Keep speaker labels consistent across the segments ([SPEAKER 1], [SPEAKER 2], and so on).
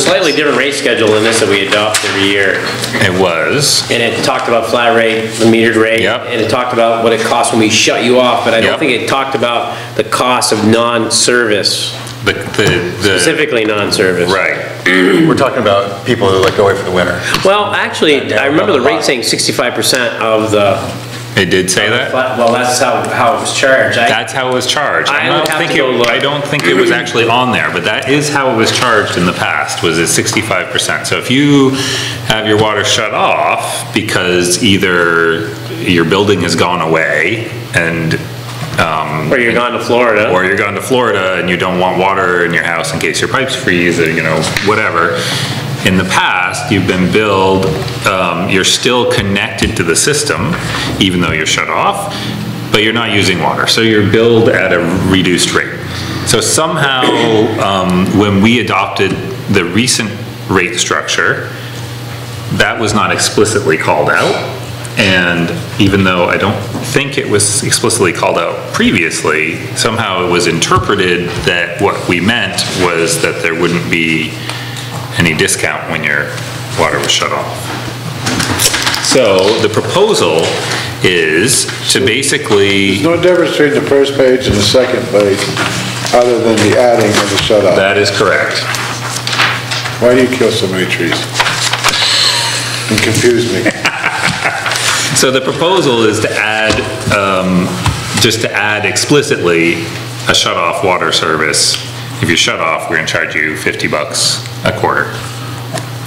[SPEAKER 1] slightly different rate schedule than this that we adopt every year.
[SPEAKER 2] It was.
[SPEAKER 1] And it talked about flat rate, the metered rate.
[SPEAKER 2] Yep.
[SPEAKER 1] And it talked about what it costs when we shut you off, but I don't
[SPEAKER 2] Yep.
[SPEAKER 1] think it talked about the cost of non-service,
[SPEAKER 2] The, the,
[SPEAKER 1] specifically non-service.
[SPEAKER 2] the, right.
[SPEAKER 3] We're talking about people who like go away for the winter.
[SPEAKER 1] Well, actually, I remember the rate saying 65% of the,
[SPEAKER 2] It did say that?
[SPEAKER 1] but- well, that's how, how it was charged. I-
[SPEAKER 2] That's how it was charged.
[SPEAKER 1] I
[SPEAKER 2] I
[SPEAKER 1] would
[SPEAKER 2] don't
[SPEAKER 1] have
[SPEAKER 2] think
[SPEAKER 1] to go
[SPEAKER 2] it,
[SPEAKER 1] look.
[SPEAKER 2] I don't think it was actually on there, but that is how it was charged in the past, was at sixty-five percent. So if you have your water shut off because either your building has gone away and, um,
[SPEAKER 1] Or you're gone to Florida.
[SPEAKER 2] or you're going to Florida and you don't want water in your house in case your pipes freeze or, you know, whatever. In the past, you've been billed, um, you're still connected to the system, even though you're shut off, but you're not using water, so you're billed at a reduced rate. So somehow, um, when we adopted the recent rate structure, that was not explicitly called out. And even though I don't think it was explicitly called out previously, somehow it was interpreted that what we meant was that there wouldn't be any discount when your water was shut off. So the proposal is to basically,
[SPEAKER 4] No difference between the first page and the second page, other than the adding and the shut off.
[SPEAKER 2] that is correct.
[SPEAKER 4] Why do you kill so many trees? And confuse me.
[SPEAKER 2] So the proposal is to add, um, just to add explicitly a shut-off water service. If you shut off, we're gonna charge you 50 bucks a quarter.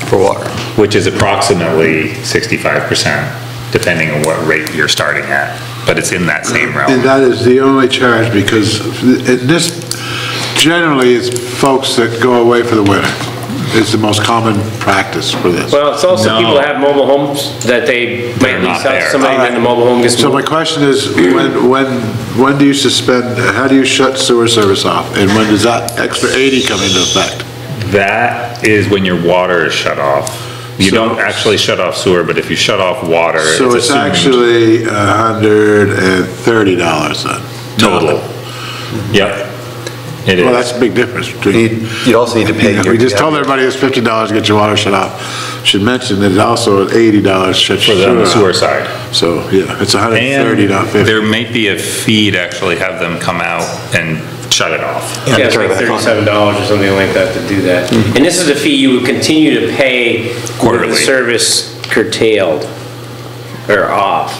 [SPEAKER 2] For water. Which is approximately 65%, depending on what rate you're starting at, but it's in that same
[SPEAKER 4] Uh, And
[SPEAKER 2] realm.
[SPEAKER 4] that is the only charge, because it- this, generally, it's folks that go away for the winter, is the most common practice for this.
[SPEAKER 1] Well, it's also people
[SPEAKER 2] No.
[SPEAKER 1] that have mobile homes that they might
[SPEAKER 2] They're
[SPEAKER 1] lease out
[SPEAKER 2] not
[SPEAKER 1] to
[SPEAKER 2] there.
[SPEAKER 1] somebody, then the mobile home gets
[SPEAKER 4] So my
[SPEAKER 1] moved.
[SPEAKER 4] question is, when, when, when do you suspend, how do you shut sewer service off? And when does that extra 80 come into effect?
[SPEAKER 2] That is when your water is shut off. You
[SPEAKER 4] So-
[SPEAKER 2] don't actually shut off sewer, but if you shut off water, it's
[SPEAKER 4] So it's
[SPEAKER 2] assumed
[SPEAKER 4] actually $130 then?
[SPEAKER 2] Total. Yep. It is.
[SPEAKER 4] Well, that's a big difference between.
[SPEAKER 3] You'd also need to pay.
[SPEAKER 4] We just told everybody it's fifty dollars to get your water shut off. Should mention that it's also at eighty dollars shut
[SPEAKER 2] For
[SPEAKER 4] your
[SPEAKER 2] the on the
[SPEAKER 4] sewer
[SPEAKER 2] sewer
[SPEAKER 4] off.
[SPEAKER 2] side.
[SPEAKER 4] So, yeah, it's a hundred and thirty, not
[SPEAKER 2] And there
[SPEAKER 4] fifty.
[SPEAKER 2] may be a fee to actually have them come out and shut it off.
[SPEAKER 1] Yeah, it's like thirty-seven dollars or something like that to do that.
[SPEAKER 3] Mm-hmm.
[SPEAKER 1] And this is a fee you would continue to pay with the
[SPEAKER 2] Quarterly.
[SPEAKER 1] service curtailed or off.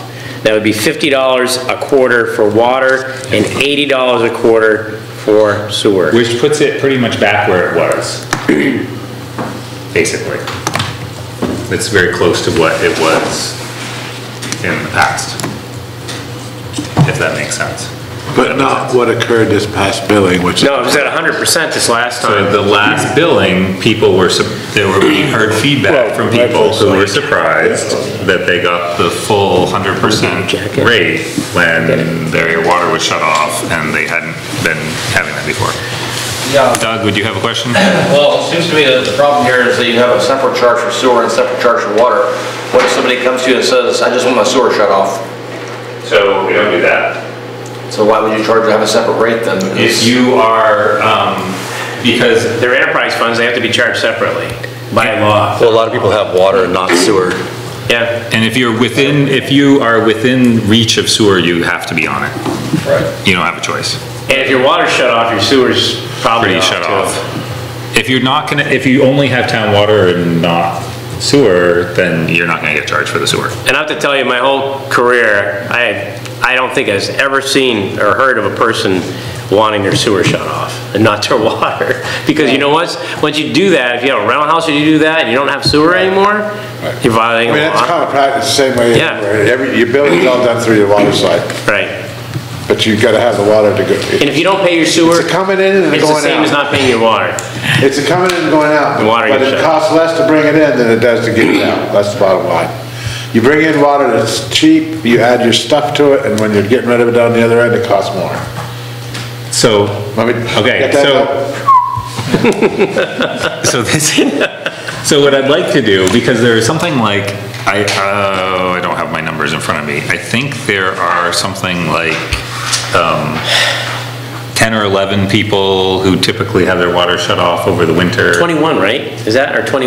[SPEAKER 1] That would be fifty dollars a quarter for water and eighty dollars a quarter for sewer.
[SPEAKER 2] Which puts it pretty much back where it was, basically. It's very close to what it was in the past, if that makes sense.
[SPEAKER 4] But not what occurred this past billing, which.
[SPEAKER 1] No, it was at hundred percent this last
[SPEAKER 2] So
[SPEAKER 1] time.
[SPEAKER 2] the last billing, people were, sup- there were, we heard feedback from people who were surprised that they got the full hundred percent rate when their water was shut off and they hadn't been having that before.
[SPEAKER 5] Yeah,
[SPEAKER 2] Doug, would you have a question?
[SPEAKER 5] well, it seems to me that the problem here is that you have a separate charge for sewer and a separate charge for water. What if somebody comes to you and says, I just want my sewer shut off?
[SPEAKER 2] So we don't do that.
[SPEAKER 5] So why would you charge to have a separate rate then?
[SPEAKER 2] If you are, um, because
[SPEAKER 1] They're enterprise funds, they have to be charged separately by law.
[SPEAKER 3] Well, a lot of people have water and not sewer.
[SPEAKER 1] Yeah,
[SPEAKER 2] And if you're within, if you are within reach of sewer, you have to be on it.
[SPEAKER 5] Right.
[SPEAKER 2] You don't have a choice.
[SPEAKER 1] and if your water's shut off, your sewer's probably off
[SPEAKER 2] pretty shut off.
[SPEAKER 1] too.
[SPEAKER 2] If you're not gonna, if you only have town water and not sewer, then you're not gonna get charged for the sewer.
[SPEAKER 1] And I have to tell you, my whole career, I, I don't think I've ever seen or heard of a person wanting their sewer shut off and not their water. Because you know what? Once you do that, if you have a rental house and you do that, and you don't have sewer anymore, you're violating
[SPEAKER 4] I mean,
[SPEAKER 1] the
[SPEAKER 4] that's
[SPEAKER 1] law.
[SPEAKER 4] common practice, the same way.
[SPEAKER 1] Yeah.
[SPEAKER 4] everywhere. Every, your billing's all done through your water side,
[SPEAKER 1] Right.
[SPEAKER 4] but you've gotta have the water to go.
[SPEAKER 1] And if you don't pay your sewer,
[SPEAKER 4] It's a coming in and a
[SPEAKER 1] it's the
[SPEAKER 4] going
[SPEAKER 1] same as
[SPEAKER 4] out.
[SPEAKER 1] not paying your water.
[SPEAKER 4] It's a coming in and going out.
[SPEAKER 1] The water
[SPEAKER 4] But
[SPEAKER 1] gets
[SPEAKER 4] it
[SPEAKER 1] shut.
[SPEAKER 4] costs less to bring it in than it does to get it out. That's the bottom line. You bring in water that's cheap, you add your stuff to it, and when you're getting rid of it down the other end, it costs more.
[SPEAKER 2] So,
[SPEAKER 4] Let me-
[SPEAKER 2] okay,
[SPEAKER 4] get that
[SPEAKER 2] so,
[SPEAKER 4] out?
[SPEAKER 2] so this, so what I'd like to do, because there is something like, I, oh, I don't have my numbers in front of me. I think there are something like, um, 10 or 11 people who typically have their water shut off over the winter.
[SPEAKER 1] 21, right? Is that, or 20?